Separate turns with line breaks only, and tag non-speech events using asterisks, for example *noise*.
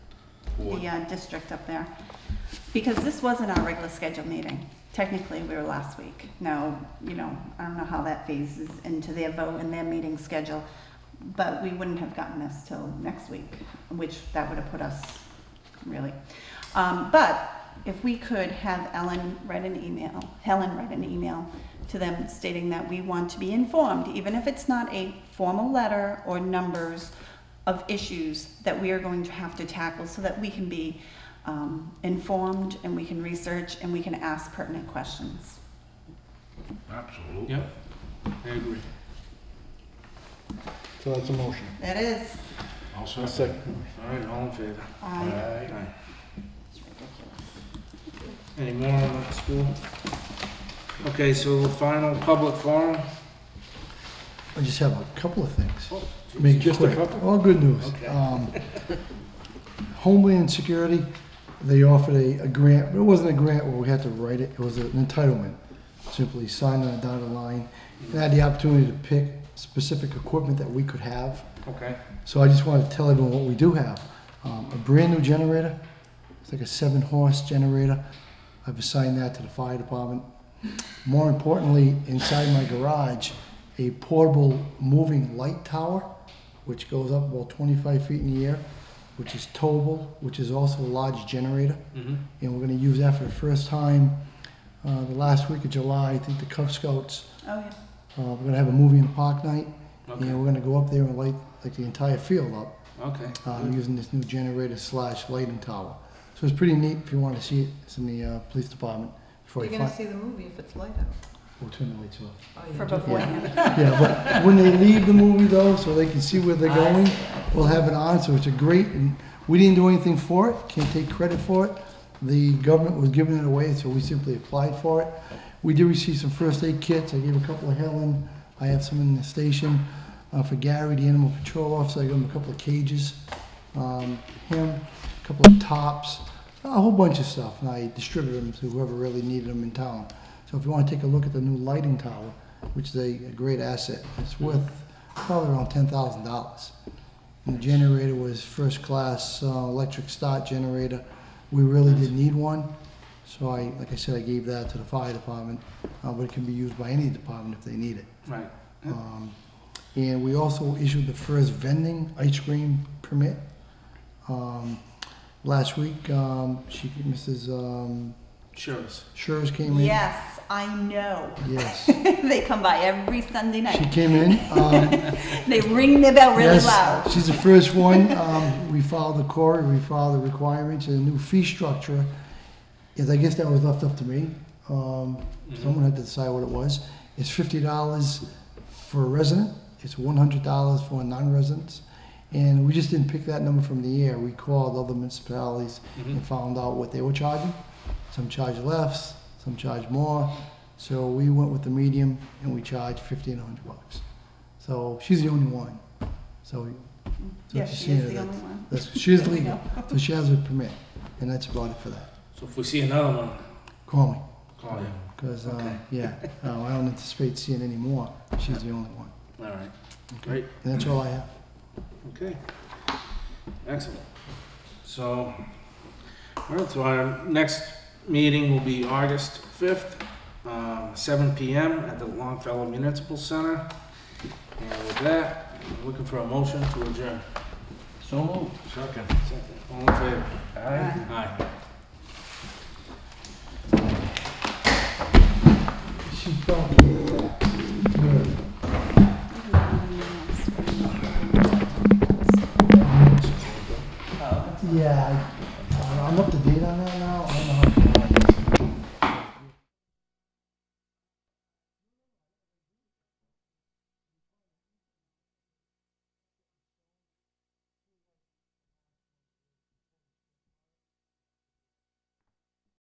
board.
the uh, district up there. Because this wasn't our regular scheduled meeting. Technically, we were last week. Now, you know, I don't know how that phases into their vote and their meeting schedule, but we wouldn't have gotten this till next week, which that would have put us, really. Um, But if we could have Ellen write an email, Helen write an email to them stating that we want to be informed, even if it's not a formal letter or numbers of issues that we are going to have to tackle so that we can be um, informed and we can research and we can ask pertinent questions.
Absolutely.
Yep, I agree.
So that's a motion.
That is,
I'll
A
second.
second.
All right, all in favor?
um,
Aye.
it's ridiculous.
Any more on that school? Okay, so final public forum?
I just have a couple of things.
Oh,
Make it
Just a
quick.
couple?
All good news.
Okay.
Um, Homeland Security, they offered a, a grant, but it wasn't a grant where we had to write it, it was an entitlement. Simply sign on a dotted line, and I had the opportunity to pick specific equipment that we could have.
Okay.
So I just wanted to tell everyone what we do have. Um, a brand new generator, it's like a seven horse generator. I've assigned that to the fire department. More importantly, inside my garage, a portable moving light tower, which goes up about 25 feet in the air, which is towable, which is also a large generator
Mm-hmm.
and we're going to use that for the first time uh, the last week of July. I think the Cub Scouts,
Oh, yeah.
uh, we're going to have a movie in the park night,
Okay,
and we're going to go up there and light like the entire field up
okay.
uh, using this new generator slash lighting tower. So it's pretty neat if you want to see it. It's in the uh, police department. Before
You're
you
gonna
find,
see the movie if it's light out.
we'll turn the lights off.
Oh, yeah.
For beforehand.
Yeah, but when they leave the movie though, so they can see where they're going, we'll have it on, so it's a great, and we didn't do anything for it, can't take credit for it. The government was giving it away, so we simply applied for it. We did receive some first aid kits, I gave a couple of Helen, I have some in the station, uh, for Gary, the animal patrol officer, I gave him a couple of cages, um, him, a couple of tops, a whole bunch of stuff, and I distributed them to whoever really needed them in town. So if you wanna take a look at the new lighting tower, which is a, a great asset. It's worth probably around ten thousand dollars. And the generator was first class uh, electric start generator. We really didn't need one, so I, like I said, I gave that to the fire department. Uh, but it can be used by any department if they need it.
Right. Yeah.
Um, and we also issued the first vending ice cream permit. Um, last week, um, she, Mrs. Um,
Sure. is.
Schurz came in.
Yes, I know. *laughs*
Yes.
They come by every Sunday
She
night.
came in. Um,
They ring their bell *laughs* really
Yes,
loud.
She's the first one. Um, we filed the court, we filed the requirements, and the new fee structure. Yes, I guess that was left up to me. Um,
Mm-hmm.
Someone had to decide what it was. It's fifty dollars for a resident. It's one hundred dollars for non-residents. And we just didn't pick that number from the air. We called other municipalities
Mhm.
and found out what they were charging. Some charge less, some charge more. So we went with the medium and we charged fifteen hundred bucks. So she's the only one. So so
Yeah,
she's
she is
seen it.
the only one.
that's, she's legal, so she has a permit, and that's about it for that.
So if we see another one,
Call me,
call you.
because,
Okay.
uh, yeah, uh, I don't anticipate seeing any more. She's the only one.
All right. Great.
And that's all I have.
Okay. Excellent. So, all right, so our next meeting will be August 5th, um, 7 PM at the Longfellow Municipal Center. And with that, I'm looking for a motion to adjourn.
So moved.
Second. All in favor?
Aye.
Aye.
She felt Yeah, I- I'm up to date on that.